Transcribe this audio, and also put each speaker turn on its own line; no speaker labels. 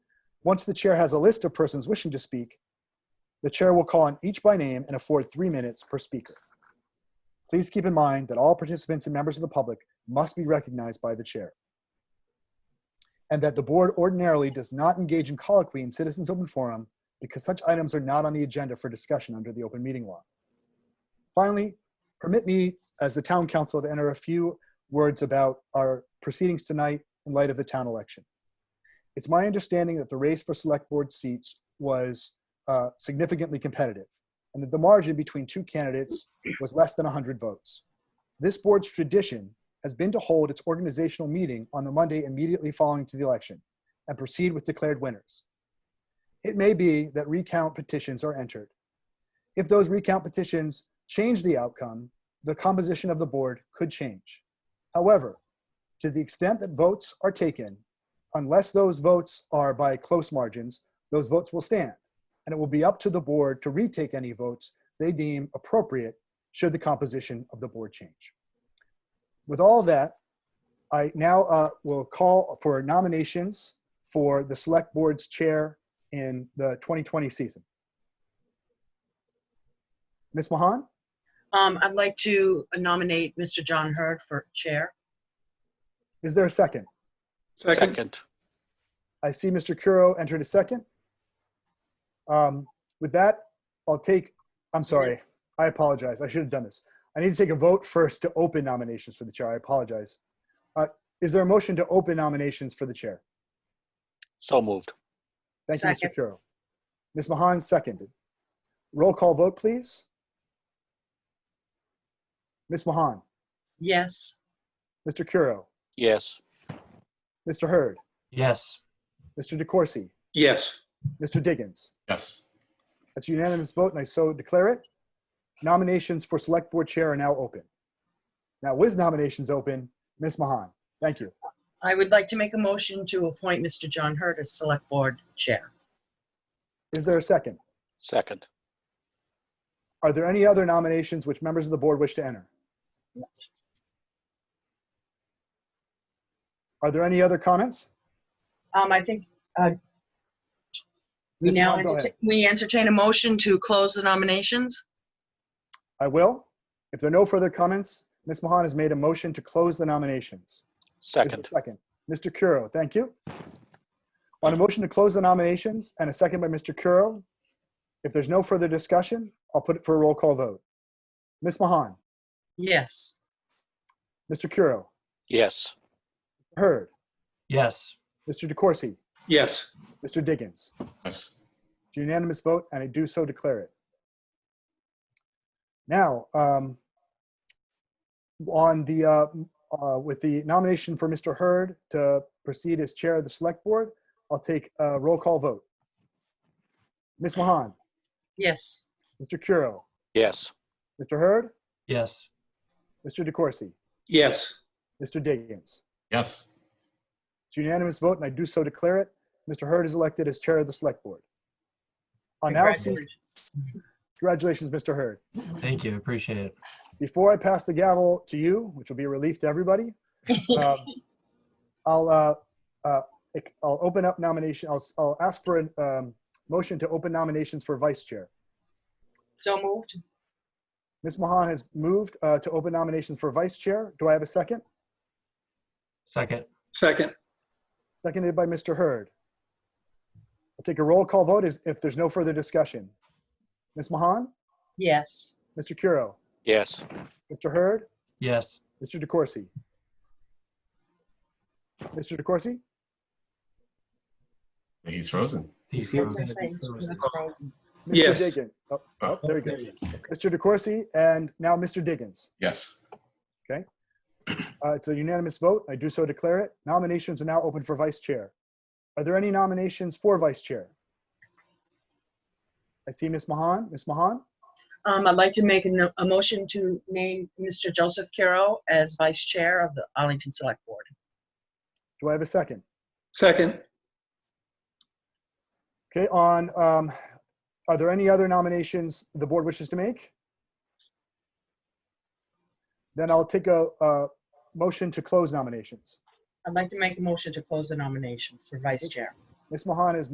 Once the chair has a list of persons wishing to speak, the chair will call on each by name and afford three minutes per speaker. Please keep in mind that all participants and members of the public must be recognized by the chair. And that the board ordinarily does not engage in colloquy in citizens' open forum because such items are not on the agenda for discussion under the open meeting law. Finally, permit me, as the town council, to enter a few words about our proceedings tonight in light of the town election. It's my understanding that the race for select board seats was uh, significantly competitive, and that the margin between two candidates was less than 100 votes. This board's tradition has been to hold its organizational meeting on the Monday immediately following to the election and proceed with declared winners. It may be that recount petitions are entered. If those recount petitions change the outcome, the composition of the board could change. However, to the extent that votes are taken, unless those votes are by close margins, those votes will stand, and it will be up to the board to retake any votes they deem appropriate should the composition of the board change. With all that, I now uh, will call for nominations for the Select Board's Chair in the 2020 season. Ms. Mahan,
Um, I'd like to nominate Mr. John Hurd for chair.
is there a second?
Second.
I see Mr. Curo entered a second. Um, With that, I'll take, I'm sorry, I apologize. I should have done this. I need to take a vote first to open nominations for the chair. I apologize. Uh, Is there a motion to open nominations for the chair?
So moved.
Thank you, Mr.
Second.
Curo. Ms. Mahan seconded. Roll call vote, please. Ms. Mahan,
Yes.
Mr. Curo,
Yes.
Mr. Hurd,
Yes.
Mr. DeCoursey,
Yes.
Mr. Diggins.
Yes.
That's a unanimous vote, and I so declare it. Nominations for Select Board Chair are now open. Now, with nominations open, Ms. Mahan, thank you.
I would like to make a motion to appoint Mr. John Hurd as select board chair.
Is there a second?
Second.
Are there any other nominations which members of the board wish to enter? Are there any other comments?
Um, I think, uh, we
Ms.
now,
Bond, go
enterta-
ahead.
we entertain a motion to close the nominations.
I will. If there are no further comments, Ms. Mahan has made a motion to close the nominations. Is there a
Second.
Second. Mr. Curo, thank you. On a motion to close the nominations and a second by Mr. Curo, if there's no further discussion, I'll put it for a roll call vote. Ms. Mahan,
Yes.
Mr. Curo,
Yes.
Hurd,
Yes.
Mr. DeCoursey,
Yes.
Mr. Diggins.
Yes.
It's a unanimous vote, and I do so declare it. Now, um, on the, uh, m- uh, with the nomination for Mr. Hurd to proceed as Chair of the Select Board, I'll take a roll call vote. Ms. Mahan,
Yes.
Mr. Curo,
Yes.
Mr. Hurd,
Yes.
Mr. DeCoursey,
Yes.
Mr. Diggins.
Yes.
It's a unanimous vote, and I do so declare it. Mr. Hurd is elected as Chair of the Select Board. I'll now seek,
Congratulations.
congratulations, Mr. Hurd.
Thank you. Appreciate it.
before I pass the gavel to you, which will be a relief to everybody, um, I'll, uh, uh, ec- I'll open up nomination. I'll, s- I'll ask for a um, motion to open nominations for vice chair.
So moved.
Ms. Mahan has moved uh, to open nominations for vice chair. Do I have a second?
Second.
Second.
Seconded by Mr. Hurd. I'll take a roll call vote is if there's no further discussion. Ms. Mahan,
Yes.
Mr. Curo,
Yes.
Mr. Hurd,
Yes.
Mr. DeCourcy. Mr. DeCourcy?
He's frozen.
He's frozen.
That's frozen.
Mr.
Yes.
Diggins. Oh, oh, there he goes. Mr. DeCourcy and now Mr. Diggins.
Yes.
Uh, it's a unanimous vote. I do so declare it. Nominations are now open for vice chair. Are there any nominations for vice chair? I see Ms. Mahan. Ms. Mahan,
Um, I'd like to make a, no- a motion to name Mr. Joseph Caro as vice chair of the Arlington Select Board.
do I have a second?
Second.
Okay, on, um, are there any other nominations the board wishes to make? Then I'll take a, a motion to close nominations.
I'd like to make a motion to close the nominations for vice chair.
Ms. Mahan is.